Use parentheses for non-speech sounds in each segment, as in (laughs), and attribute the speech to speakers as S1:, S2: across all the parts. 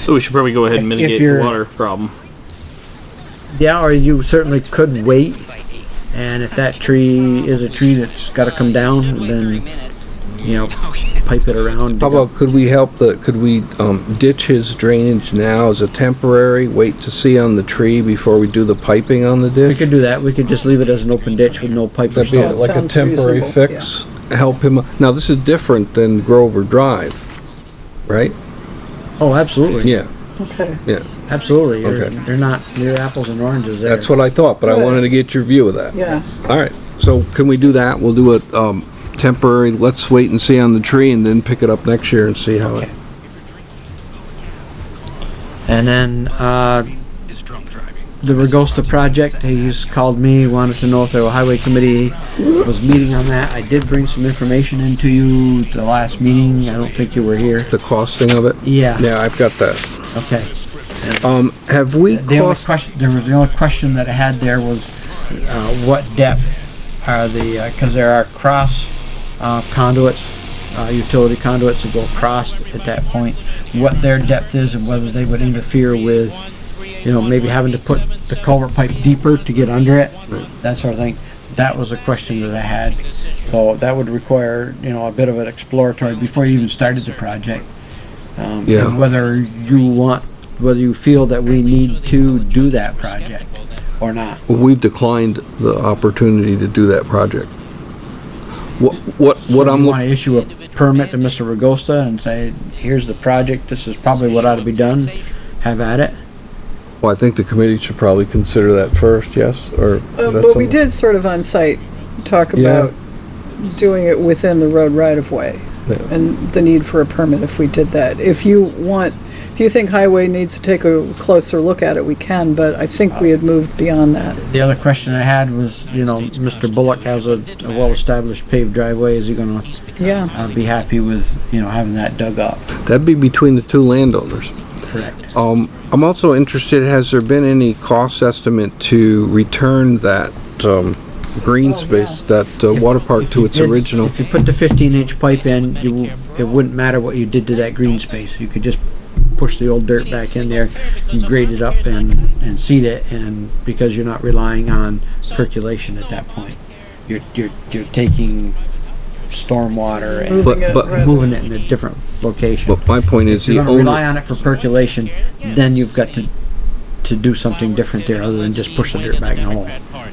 S1: So we should probably go ahead and
S2: If- if
S1: mitigate the
S2: you're-
S1: water problem.
S2: Yeah, or you certainly could wait. And if that tree is a tree that's got to come down, then you know, pipe it around. to
S3: How
S2: go.
S3: about, could we help the, could we um, ditch his drainage now as a temporary, wait to see on the tree before we do the piping on the
S2: We
S3: ditch?
S2: could do that. We could just leave it as an open ditch with no pipe or
S3: That'd be
S2: stuff.
S3: like a
S4: sounds
S3: temporary
S4: reasonable,
S3: fix, help him, now this is different than Grover Drive, right?
S2: Oh, absolutely.
S3: Yeah,
S4: Okay.
S3: yeah,
S2: Absolutely. You're,
S3: Okay.
S2: They're not, they're apples and oranges there.
S3: that's what I thought, but I wanted to get your view of that.
S4: Yeah.
S3: All right, so can we do that? We'll do it um, temporary, let's wait and see on the tree and then pick it up next year and see how
S2: Okay.
S3: it,
S2: And then, uh, the Regosta project, he's called me, wanted to know if the highway committee was meeting on that. I did bring some information into you at the last meeting. I don't think you were here.
S3: the costing of it?
S2: Yeah.
S3: Yeah, I've got that.
S2: Okay.
S3: Um, have we
S2: The only
S3: cost,
S2: question, there was, the only question that I had there was, uh, what depth are the, uh 'cause cause there are cross, uh, conduits, uh, utility conduits that go across at that point, what their depth is and whether they would interfere with, you know, maybe having to put the culvert pipe deeper to get under it, that sort of thing. That was a question that I had. So that would require, you know, a bit of an exploratory before you even started the project. Um,
S3: Yeah.
S2: and whether you want, whether you feel that we need to do that project or not.
S3: we've declined the opportunity to do that project. What, what, what I'm,
S2: Want
S3: looking
S2: to issue a permit to Mr. Regosta and say, here's the project, this is probably what ought to be done, have at it.
S3: well, I think the committee should probably consider that first, yes, or? is that
S4: Uh, But we
S3: something-
S4: did sort of on site talk
S3: Yeah.
S4: about doing it within the road right-of-way
S3: Yeah.
S4: and the need for a permit if we did that. If you want, if you think highway needs to take a closer look at it, we can, but I think we had moved beyond that.
S2: The other question I had was, you know, Mr. Bullock has a, a well-established paved driveway, is he gonna,
S4: Yeah,
S2: uh, be happy with, you know, having that dug up?
S3: That'd be between the two landowners.
S2: Correct.
S3: Um, I'm also interested, has there been any cost estimate to return that, um, green space, that uh, water park
S2: Oh, If
S3: to
S2: you
S3: its
S2: did-
S3: original?
S2: If you put the fifteen inch pipe in, you, w- it wouldn't matter what you did to that green space, you could just push the old dirt back in there, you grade it up and, and seed it, and because you're not relying on percolation at that point. You're, you're, you're taking stormwater and
S4: moving it
S3: but-
S4: rather-
S2: moving it in a different location.
S3: But my point is,
S2: If
S3: the
S2: you're gonna rely
S3: owner,
S2: on it for percolation, then you've got to, to do something different there other than just push the dirt back in the hole.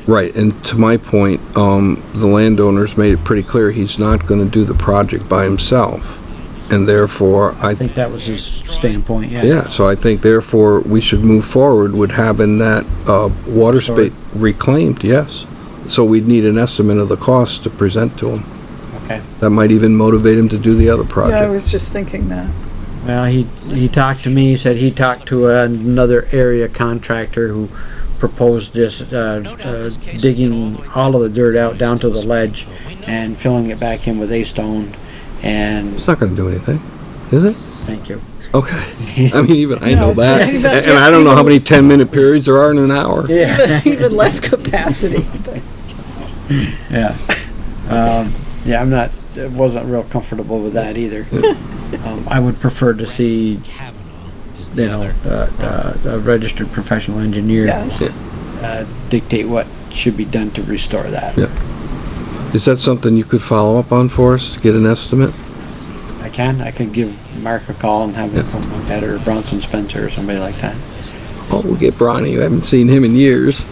S3: right, and to my point, um, the landowner's made it pretty clear he's not gonna do the project by himself. And therefore, I,
S2: I think that was his standpoint, yeah.
S3: yeah, so I think therefore, we should move forward with having that, uh, water
S2: Sorry.
S3: space reclaimed, yes. So we'd need an estimate of the cost to present to him.
S2: Okay.
S3: That might even motivate him to do the other
S4: Yeah, I
S3: project.
S4: was just thinking that.
S2: Well, he, he talked to me, he said he talked to another area contractor who proposed this, uh, uh, digging all of the dirt out down to the ledge and filling it back in with A-stone and,
S3: It's not gonna do anything, is it?
S2: thank you.
S4: (laughs)
S3: Okay. I mean, even I
S4: No,
S3: know
S4: it's
S3: that.
S4: fine. (laughs) Even-
S3: And and I don't know how many ten-minute periods there are in an hour.
S2: Yeah.
S4: (laughs) Even
S2: (laughs)
S4: less capacity.
S2: Yeah. Um, (laughs) yeah, I'm not, I wasn't real comfortable with that either. (laughs) Um, I would prefer to see, you know, uh, uh, a registered professional engineer
S4: Yes.
S2: uh, dictate what should be done to restore that.
S3: Yeah. Is that something you could follow up on for us, get an estimate?
S2: I can, I could give Mark a call and have him
S3: Yeah.
S2: come look at it, or Bronson Spencer or somebody like that.
S3: Oh, we'll get Bronny. I haven't seen him in years.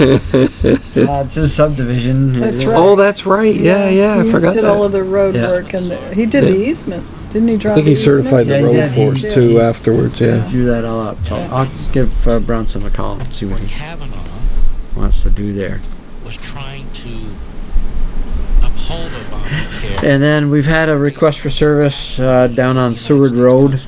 S2: Uh, it's his subdivision.
S4: That's right.
S3: Oh, that's right. Yeah, yeah, I
S4: He
S3: forgot
S4: Did all of
S3: that.
S4: the road
S2: Yeah.
S4: work and the- he did the easement, didn't he draw
S3: I
S4: the
S3: think he
S4: easements?
S3: certified the
S2: Yeah, he
S3: road
S2: did.
S3: for us
S4: He
S3: too afterwards, Oh, yeah.
S2: Do that all up, so I'll give uh, Bronson a call and see what he
S5: Kavanaugh
S2: wants to do there.
S5: was trying to uphold
S2: (laughs)
S5: Obamacare.
S2: And then we've had a request for service, uh, down on Seward Road.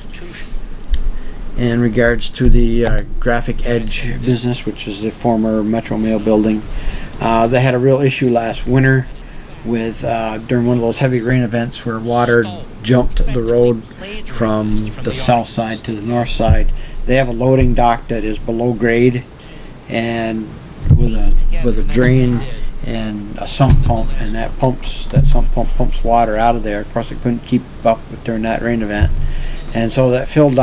S2: in regards to the uh, Graphic Edge business, which is the former Metro Mail building. Uh, they had a real issue last winter with uh, during one of those heavy rain events where water jumped the road from the south side to the north side. They have a loading dock that is below grade and with a with a drain and a sump pump, and that pumps that sump pump pumps water out of there. Of course, it couldn't keep up during that rain event, and so that filled up.